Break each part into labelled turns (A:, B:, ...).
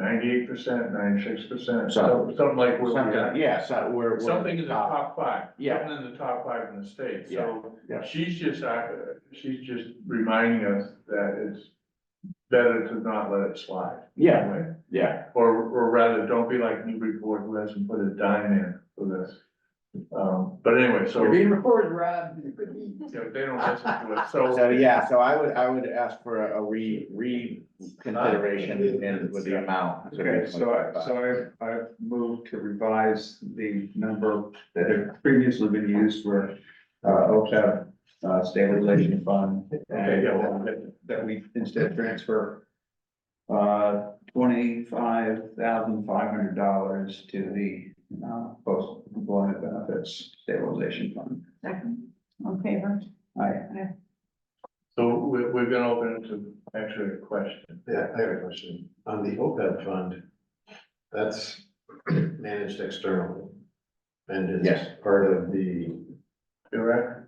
A: ninety-eight percent, ninety-six percent,
B: So-
A: something like where we
B: Something,
A: are.
B: yeah, so we're. we're
A: Something in the top five,
B: Yeah.
A: something in the top five in the state, so.
B: Yeah, yeah.
A: She's just, uh, she's just reminding us that it's better to not let it slide.
B: Yeah, yeah,
A: Or, or rather, don't be like Newburyport who hasn't put a dime in for this. Um, but anyway, so,
C: You're
A: you
C: being recorded, Rob.
A: know, they don't listen to it, so.
B: so yeah, so I would, I would ask for a re, reconsideration in with the amount.
D: Okay, so I, so I, I've moved to revise the number that had previously been used for, uh, OPEB, uh, stabilization fund.
A: Okay,
D: And
A: yeah,
D: uh,
A: well, that-
D: that we instead transfer, uh, twenty-five thousand five hundred dollars to the, uh, post-employment benefits stabilization fund.
C: Second, on favor.
D: I,
A: So we're, we're gonna open it to actually a question.
E: Yeah, I have a question. On the OPEB fund, that's managed externally. And is
B: Yes.
E: part of the,
A: Pirac,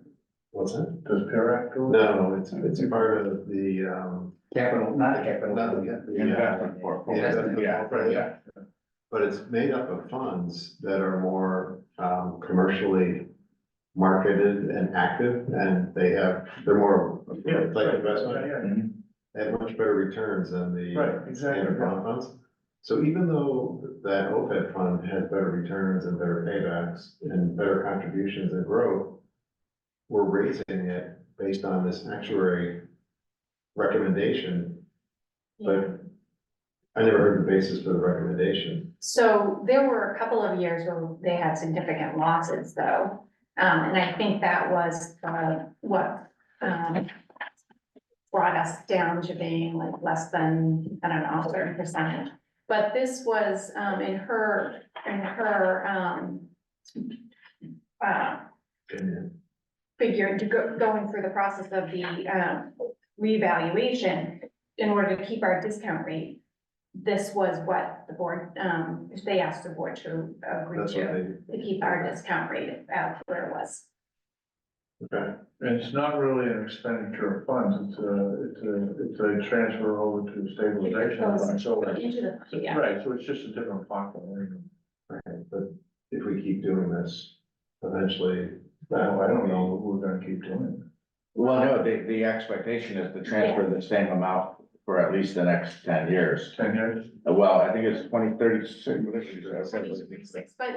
E: what's that?
A: does Pirac do it?
E: No, it's, it's part of the, um,
D: capital, not the capital.
E: not the- yeah,
B: Investment portfolio,
E: Investment
B: E yeah,
E: portfolio.
B: yeah.
E: but it's made up of funds that are more, um, commercially marketed and active, and they have, they're more like investment.
A: Yeah,
E: They have much better returns than the.
A: yeah, Right, exactly.
E: standard bond funds. So even though that OPEB fund has better returns and better paybacks and better contributions and growth, we're raising it based on this actuary recommendation, but I never heard the basis for the recommendation.
F: So there were a couple of years where they had significant losses though. Um, and I think that was, uh, what, um, brought us down to being like less than, I don't know, certain percentage. But this was, um, in her, in her, um, uh,
E: And
F: figure to go, going through the process of the, um, revaluation in order to keep our discount rate. This was what the board, um, they asked the board to agree
E: That's what
F: to,
E: they,
F: to keep our discount rate at where it was.
E: okay,
A: And it's not really an expenditure of funds, it's a, it's a, it's a transfer over to stabilization. fund, so-
F: Into the,
A: so-
F: yeah.
A: Right, so it's just a different pocket.
E: okay, but if we keep doing this, eventually,
A: Now, I don't know, we're gonna keep doing it.
B: Well, no, the, the expectation is to transfer the same amount for at least the next ten years.
A: Ten years?
B: Uh, Well, I think it's twenty thirty six.
F: But,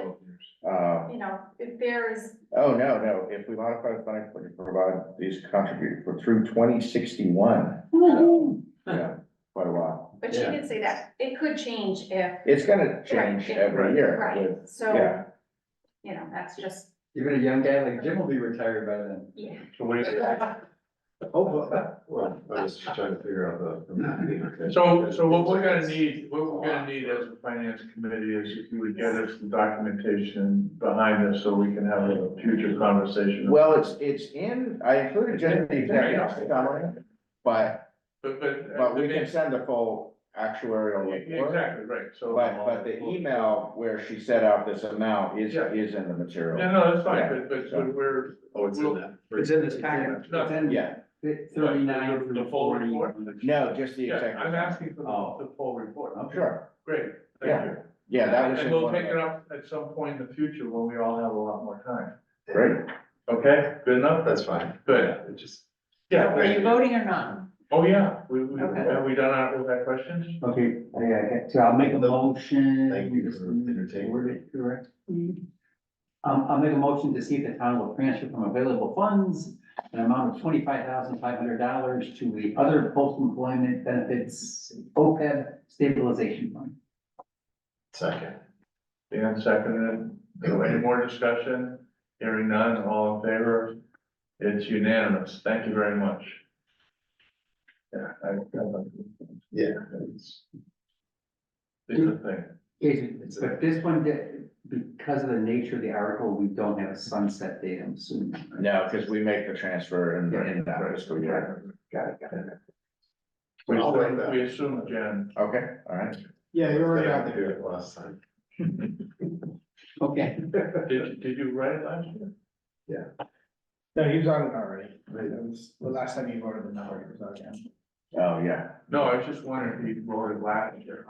B: Uh,
F: you know, if there is,
B: oh, no, no, if we modify the funding, we can provide these contribute for through twenty sixty one.
F: Mm-hmm.
B: Yeah, quite a while.
F: but she
E: Yeah.
F: did say that, it could change if.
B: It's gonna change
F: Right,
B: every year with,
F: Right, so,
B: yeah,
F: you know, that's just,
C: Even a young guy like Jim will be retired by then.
F: yeah.
A: So we,
E: hopefully, well, I was trying to figure out the- the. math here, okay?
A: so, so what we're gonna need, what we're gonna need as a finance committee is if you would get us the documentation behind us so we can have a future conversation.
B: well, it's, it's in, I included just the executive summary, but,
A: But, but.
B: but we can send the full actuarial report.
A: Exactly, right, so.
B: But, but the email where she set out this amount is,
A: Yeah.
B: is in the
A: No,
B: material.
A: no, that's fine, but, but
B: Yeah.
A: so we're.
E: Oh, it's in that.
D: It's in this packet. It's in
B: Yeah,
D: Thirty-nine
A: The
D: through
A: full
D: forty.
A: report?
B: no, just the
A: Yeah, I'm
B: executive.
A: asking for
D: Oh.
A: the, the full report.
B: Sure,
A: Great,
B: Yeah,
A: thank you.
B: yeah, that was.
A: And
B: in
A: we'll
B: one
A: pick
B: of
A: it up at some point in the future when we all have a lot more time.
B: the- Great,
A: Okay, good enough?
E: That's fine.
A: Good.
E: It just.
A: Yeah,
C: Are you voting or not?
A: oh, yeah, we, we,
C: Okay.
A: have we done our, with our questions?
D: Okay, I, I, so I'll make a motion.
E: Thank you for entertaining.
D: Word it Correct. Um, I'll make a motion to see if the town will transfer from available funds an amount of twenty-five thousand five hundred dollars to the other post-employment benefits OPEB stabilization fund.
E: Second.
A: Dan seconded. Any more discussion? Hearing none, all in favor? It's unanimous. Thank you very much. Yeah, I, I.
E: Yeah.
A: It's it's a thing.
D: Is, but this one, did- because of the nature of the article, we don't have a sunset date, I'm assuming. right?
B: no, because we make the transfer in, in that fiscal year.
D: Got it, got it.
A: We
E: I'll write
A: assume,
E: that.
A: we assume, Jen.
B: Okay, all right.
E: Yeah,
C: you already
E: have to do it last time.
D: Okay,
A: Did, did you write it last year?
G: No, he was on it already. That was the last time he voted the number, he was on it.
B: Oh, yeah.
A: No, I was just wondering if you wrote it last year.